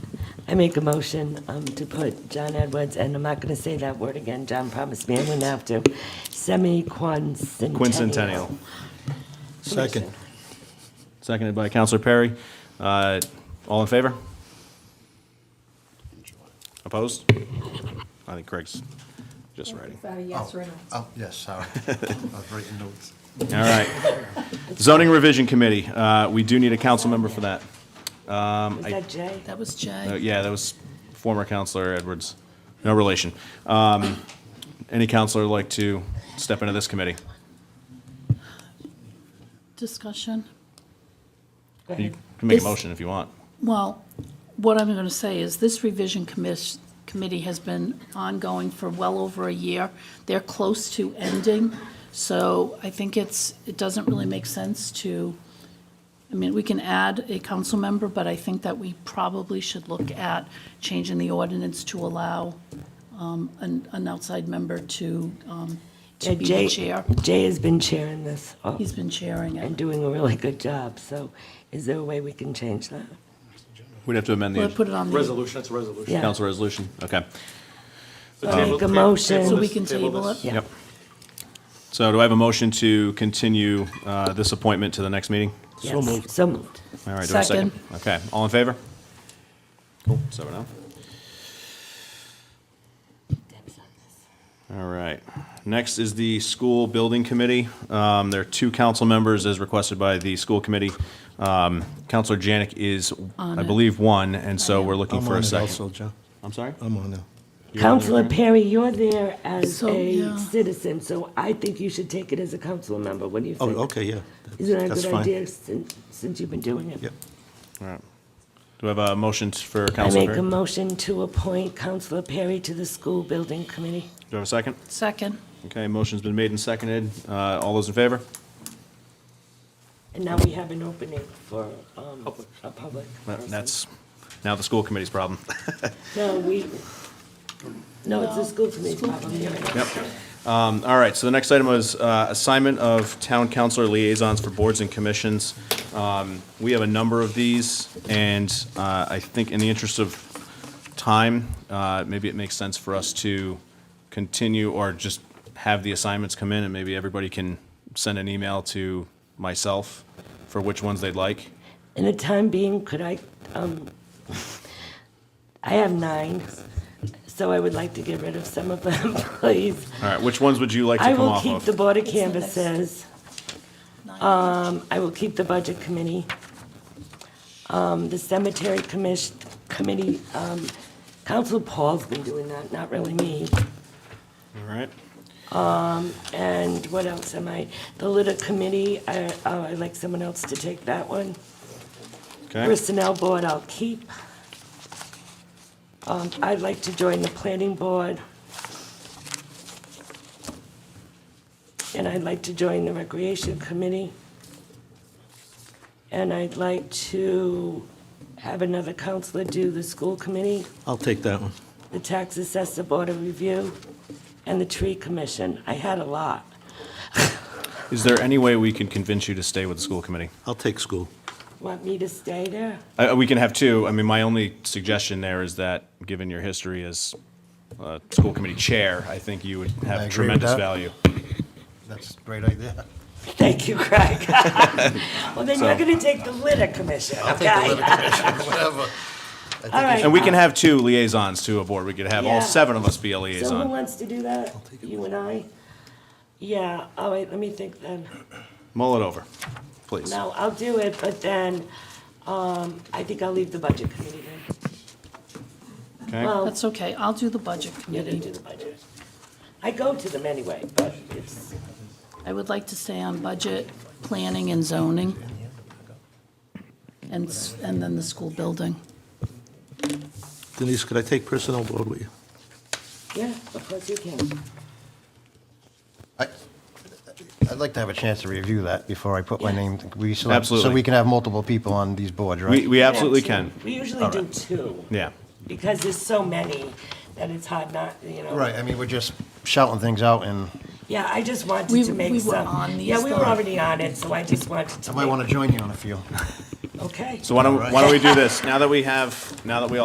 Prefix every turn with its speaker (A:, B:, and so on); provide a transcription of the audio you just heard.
A: I make a motion um, to put John Edwards, and I'm not going to say that word again, John promised me I wouldn't have to, semi-quincentennial.
B: Quincentennial.
C: Second.
B: Seconded by Counselor Perry. Uh, All in favor? Opposed? I think Craig's just writing.
D: About a yes or a no.
C: Oh, yes, sorry. I was writing notes.
B: All right. Zoning Revision Committee, uh, we do need a council member for that.
A: Is that Jay?
E: That was
B: Uh,
E: Jay.
B: Yeah, that was former Counselor Edwards. No relation. Um, Any counselor like to step into this committee?
E: Discussion.
A: Go
B: You
A: ahead.
B: can make a
E: This-
B: motion if you want.
E: Well, what I'm going to say is this revision commis- committee has been ongoing for well over a year. They're close to ending, so I think it's, it doesn't really make sense to, I mean, we can add a council member, but I think that we probably should look at changing the ordinance to allow um, an an outside member to um,
A: Yeah,
E: to be
A: Jay-
E: the chair.
A: Jay has been chairing this uh,
E: He's been chairing it.
A: and doing a really good job, so is there a way we can change that?
B: We'd have to amend
E: We'll put it
B: the
E: on the
F: Resolution, it's a resolution.
A: Yeah.
B: council resolution. Okay.
A: Make a motion.
E: So we can table it?
A: Yeah.
B: Yep. So do I have a motion to continue uh, this appointment to the next meeting?
A: Yes, So moved.
B: All right, do I have a second? Okay, all in favor? Cool, seven oh. All right, next is the School Building Committee. Um, There are two council members as requested by the school committee. Um, Counselor Janik is, I
E: it.
B: believe, one, and so we're looking
C: I'm
B: for
C: on
B: a
C: it
B: second.
C: also, John.
B: I'm sorry?
C: I'm on it.
B: You're on it,
A: Counselor
B: Karen?
A: Perry, you're there as
E: So,
A: a
E: yeah.
A: citizen, so I think you should take it as a council member. What do you
C: Oh,
A: think?
C: okay, yeah.
A: Isn't that a
C: That's
A: good
C: fine.
A: idea since, since you've been doing it?
C: Yep.
B: All right. Do I have a motion for
A: I
B: Counselor
A: make a
B: Perry? Do
A: motion to appoint Counselor Perry to the school building committee.
B: I have a second?
E: Second.
B: Okay, motion's been made and seconded. Uh, All those in favor?
A: And now we have an opening for, um, a public
B: That-
A: person.
B: That's now the school committee's problem.
A: No, we, no, it's the
E: No,
A: school committee problem. You're right.
B: Yep. Um, All right, so the next item was uh, assignment of town councilor liaisons for boards and commissions. Um, We have a number of these, and uh, I think in the interest of time, uh, maybe it makes sense for us to continue or just have the assignments come in, and maybe everybody can send an email to myself for which ones they'd like.
A: In the time being, could I, um, I have nine, so I would like to get rid of some of them, please.
B: All right, which ones would you like to
A: I
B: come
A: will
B: off
A: keep the
B: of?
A: Board of
E: It's the next-
A: Canvassers. Um, I will keep the Budget Committee. Um, The Cemetery Commission, Committee, um, Council Paul's been doing that, not really me.
B: All right,
A: And what else am I? The Litter Committee, I- oh, I'd like someone else to take that one.
B: okay.
A: Personnel Board I'll keep. Um, I'd like to join the Planning Board. And I'd like to join the Recreation Committee. And I'd like to have another counselor do the School Committee,
C: I'll take that one.
A: the Tax Assessor Board of Review, and the Tree Commission. I had a lot.
B: Is there any way we can convince you to stay with the school committee?
C: I'll take school.
A: Want me to stay there?
B: Uh, we can have two. I mean, my only suggestion there is that, given your history as uh, school committee chair, I think you would
C: I agree
B: have
C: with
B: tremendous
C: that.
B: value.
C: That's a great idea.
A: Thank you, Craig. Well, then you're
B: So-
A: going to take the Litter Commission, okay?
C: Whatever.
A: All right.
B: And we can have two liaisons to a board. We could have
A: Yeah.
B: all seven of us be a
A: So who
B: liaison.
A: Uh, wants to do that? You and I? Yeah, all right, let me think then.
B: Mull it over, please.
A: No, I'll do it, but then, um, I think I'll leave the budget committee then.
B: Okay?
E: That's okay, I'll do the budget
A: You didn't do
E: committee.
A: the budget. I go to them anyway, but it's,
E: I would like to stay on budget, planning and zoning, and, s- and then the school building.
C: Denise, could I take personnel board with you?
A: yeah, of course you can.
G: I- I'd like to have a chance to review that before I put my name. we select- So
B: Absolutely.
G: we can have multiple people on these boards, right?
B: We, we absolutely can.
A: We usually do two.
B: Yeah.
A: Because there's so many that it's hard not, you know.
G: Right, I mean, we're just shouting things out, and
A: Yeah, I just wanted
E: We-
A: to make
E: we
A: some.
E: were on these,
A: Yeah, we were
E: though.
A: already on it, so I just wanted to.
G: I might want to join you on a few.
A: to. Okay.
B: So why don't, why don't we do this? Now that we have, now that we all